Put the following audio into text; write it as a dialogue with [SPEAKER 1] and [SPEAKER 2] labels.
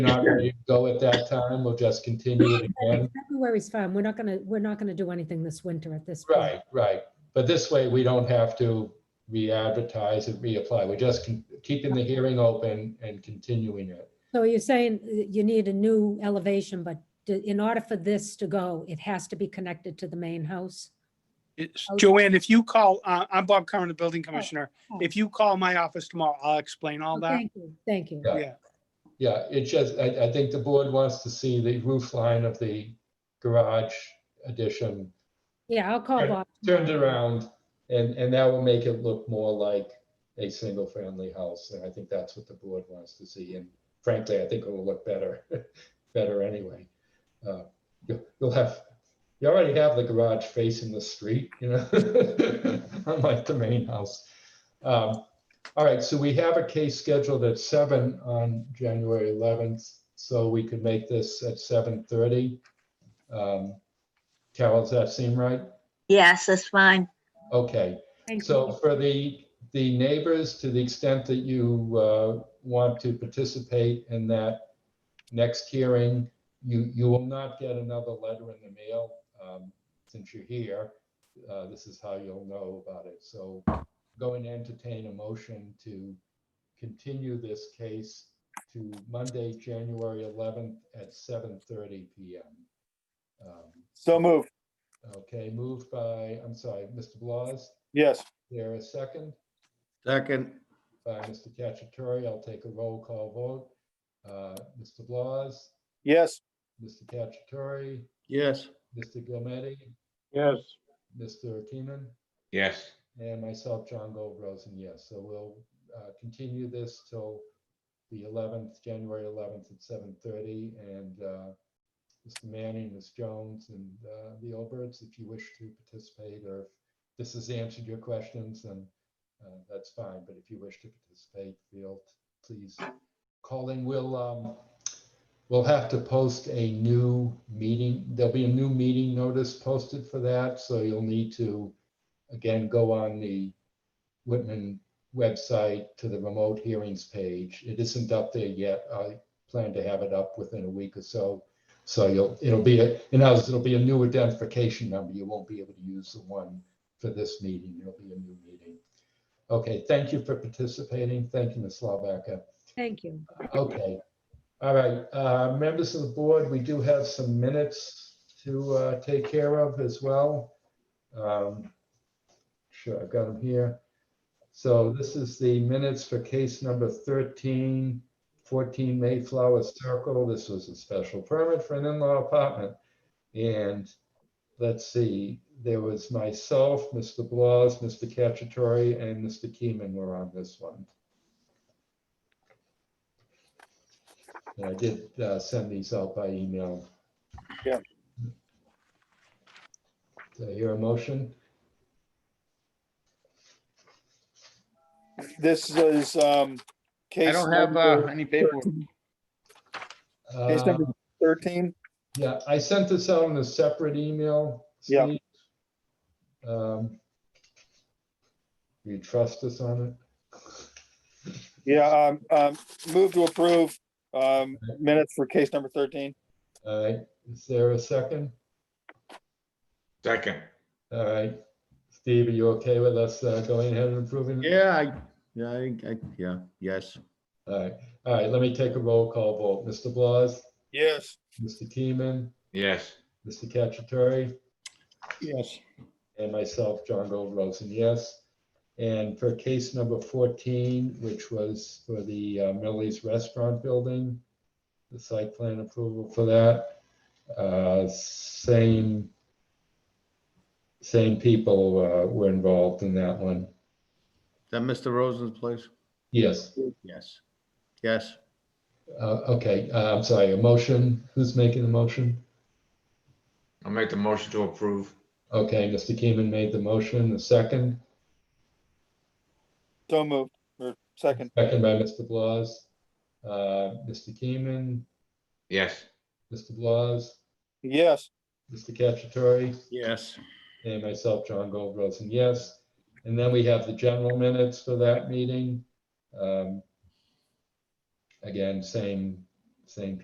[SPEAKER 1] not ready to go at that time, we'll just continue it again.
[SPEAKER 2] February's fine. We're not gonna, we're not gonna do anything this winter at this point.
[SPEAKER 1] Right, right. But this way, we don't have to re-advertise and reapply. We're just con- keeping the hearing open and continuing it.
[SPEAKER 2] So you're saying uh, you need a new elevation, but d- in order for this to go, it has to be connected to the main house?
[SPEAKER 3] It's-
[SPEAKER 2] Okay.
[SPEAKER 3] Joanne, if you call, uh, I'm Bob Curran, the building commissioner.
[SPEAKER 2] oh.
[SPEAKER 3] If you call my office tomorrow, I'll explain all
[SPEAKER 2] Oh,
[SPEAKER 3] that.
[SPEAKER 2] Thank you, thank you.
[SPEAKER 1] Yeah.
[SPEAKER 3] Yeah,
[SPEAKER 1] Yeah, it just, I, I think the board wants to see the roof line of the garage addition
[SPEAKER 2] Yeah, I'll call
[SPEAKER 1] Sure.
[SPEAKER 2] Bob.
[SPEAKER 1] turned around, and, and that will make it look more like a single-family house. And I think that's what the board wants to see. And frankly, I think it will look better, better anyway. Uh, you- You'll have, you already have the garage facing the street, you know, unlike the main house. Um, All right, so we have a case scheduled at seven on January 11th, so we could make this at 7:30. Um, Carol, does that seem right?
[SPEAKER 4] Yes, that's fine.
[SPEAKER 1] Okay,
[SPEAKER 2] Thank
[SPEAKER 1] so
[SPEAKER 2] you.
[SPEAKER 1] for the, the neighbors, to the extent that you uh, want to participate in that next hearing, you, you will not get another letter in the mail um, since you're here. Uh, This is how you'll know about it. So going to entertain a motion to continue this case to Monday, January 11th at 7:30 PM. Um,
[SPEAKER 5] So moved,
[SPEAKER 1] Okay, moved by, I'm sorry, Mr. Blas?
[SPEAKER 5] yes.
[SPEAKER 1] There a second?
[SPEAKER 5] Second.
[SPEAKER 1] By Mr. Cacciatore, I'll take a roll call vote. Uh, Mr. Blas,
[SPEAKER 5] Yes.
[SPEAKER 1] Mr. Cacciatore,
[SPEAKER 5] Yes.
[SPEAKER 1] Mr. Gilmetti,
[SPEAKER 5] Yes.
[SPEAKER 1] Mr. Keenan,
[SPEAKER 6] Yes,
[SPEAKER 1] and myself, John Goldrosen, yes. So we'll uh, continue this till the 11th, January 11th at 7:30. And uh, Mr. Manning, Ms. Jones, and uh, the Oberts, if you wish to participate, or if this has answered your questions, then uh, that's fine. But if you wish to participate, feel, please call in. We'll, um, we'll have to post a new meeting. There'll be a new meeting notice posted for that, so you'll need to, again, go on the Whitman website to the remote hearings page. It isn't up there yet. I plan to have it up within a week or so. So you'll, it'll be, a- in ours, it'll be a new identification number. You won't be able to use the one for this meeting. It'll be a new meeting. Okay, thank you for participating. Thank you, Ms. Slavaca.
[SPEAKER 2] Thank you.
[SPEAKER 1] Okay. All right, uh, members of the board, we do have some minutes to uh, take care of as well. Um, Sure, I've got them here. So this is the minutes for case number 13, 14 Mayflower Circle. This was a special permit for an in-law apartment. And let's see, there was myself, Mr. Blas, Mr. Cacciatore, and Mr. Keeman were on this one. And I did uh, send these out by email.
[SPEAKER 5] Yeah.
[SPEAKER 1] Do I hear a motion?
[SPEAKER 5] This is, um.
[SPEAKER 6] I
[SPEAKER 5] case
[SPEAKER 6] don't have uh,
[SPEAKER 5] number
[SPEAKER 6] any paperwork.
[SPEAKER 5] Case
[SPEAKER 1] Uh,
[SPEAKER 5] number thirteen,
[SPEAKER 1] Yeah, I sent this out in a separate email.
[SPEAKER 5] Yeah.
[SPEAKER 1] Steve. Um, You trust us on it?
[SPEAKER 5] yeah, um, um, move to approve, um, minutes for case number thirteen.
[SPEAKER 1] All right, is there a second?
[SPEAKER 6] Second,
[SPEAKER 1] All right, Steve, are you okay with us uh, going ahead and approving? it?
[SPEAKER 7] Yeah, I, yeah, I, think I, yeah, yes,
[SPEAKER 1] All right, all right, let me take a roll call vote. Mr. Blas,
[SPEAKER 5] Yes.
[SPEAKER 1] Mr. Keeman,
[SPEAKER 6] yes,
[SPEAKER 1] Mr. Cacciatore?
[SPEAKER 5] Yes.
[SPEAKER 1] And myself, John Gold Rosen, yes. And for case number 14, which was for the uh, Middle East Restaurant Building, the site plan approval for that, uh, same, same people uh, were involved in that one.
[SPEAKER 7] Is that Mr. Rosen's place?
[SPEAKER 1] Yes,
[SPEAKER 7] Yes, yes,
[SPEAKER 1] Uh, okay, uh, I'm sorry, a motion, who's making the motion?
[SPEAKER 6] I'll make the motion to approve.
[SPEAKER 1] Okay, Mr. Keeman made the motion, the second,
[SPEAKER 5] So moved, or second,
[SPEAKER 1] second by Mr. Blas. Uh, Mr. Keeman,
[SPEAKER 6] Yes,
[SPEAKER 1] Mr. Blas?
[SPEAKER 5] yes.
[SPEAKER 1] Mr. Cacciatore,
[SPEAKER 7] yes.
[SPEAKER 1] and myself, John Gold Rosen, yes. And then we have the general minutes for that meeting. Um, Again, same, same